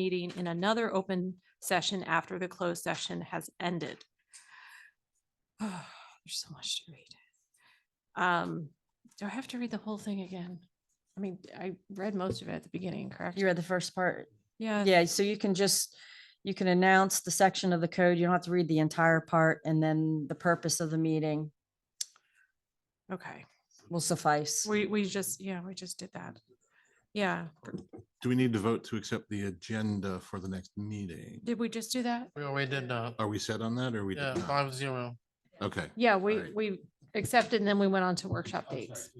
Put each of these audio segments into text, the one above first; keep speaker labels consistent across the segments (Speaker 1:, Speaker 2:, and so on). Speaker 1: meeting in another open session after the closed session has ended. There's so much to read. Um, do I have to read the whole thing again? I mean, I read most of it at the beginning, correct?
Speaker 2: You read the first part.
Speaker 1: Yeah,
Speaker 2: Yeah, so you can just, you can announce the section of the code. You don't have to read the entire part and then the purpose of the meeting
Speaker 1: okay.
Speaker 2: will suffice.
Speaker 1: We, we just, yeah, we just did that. Yeah,
Speaker 3: Do we need to vote to accept the agenda for the next meeting?
Speaker 1: did we just do that?
Speaker 4: We already did that.
Speaker 3: Are we set on that or we? did
Speaker 4: Yeah,
Speaker 3: not?
Speaker 4: five zero.
Speaker 3: Okay,
Speaker 1: Yeah, we,
Speaker 3: Right.
Speaker 1: we accepted and then we went on to workshop dates.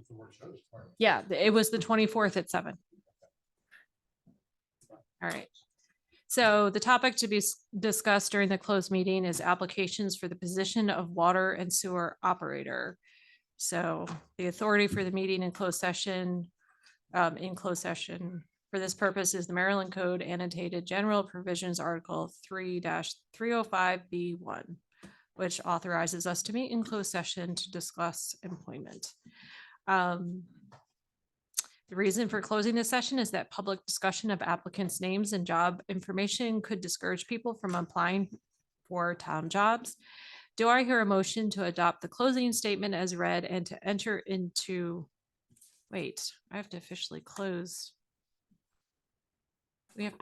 Speaker 1: Yeah, th- it was the twenty-fourth at seven. All right. So the topic to be s- discussed during the closed meeting is applications for the position of water and sewer operator. So the authority for the meeting in closed session, um, in closed session for this purpose is the Maryland Code annotated general provisions article three three oh five B one which authorizes us to meet in closed session to discuss employment. Um, The reason for closing this session is that public discussion of applicants' names and job information could discourage people from applying for town jobs. Do I hear a motion to adopt the closing statement as read and to enter into? Wait, I have to officially close. We have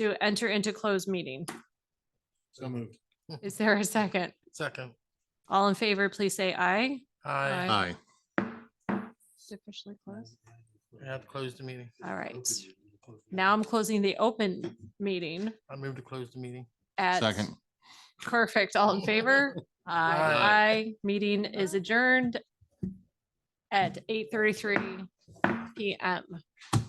Speaker 1: to enter into closed meeting.
Speaker 4: So moved.
Speaker 1: Is there a second?
Speaker 4: Second.
Speaker 1: All in favor, please say aye.
Speaker 4: Aye.
Speaker 1: Aye.
Speaker 3: aye.
Speaker 1: Officially closed.
Speaker 4: We have to close the meeting.
Speaker 1: All right. Now I'm closing the open meeting
Speaker 4: I move to close the meeting.
Speaker 1: at.
Speaker 3: Second,
Speaker 1: Perfect. All in favor? Aye. Aye. Meeting is adjourned at eight thirty-three PM.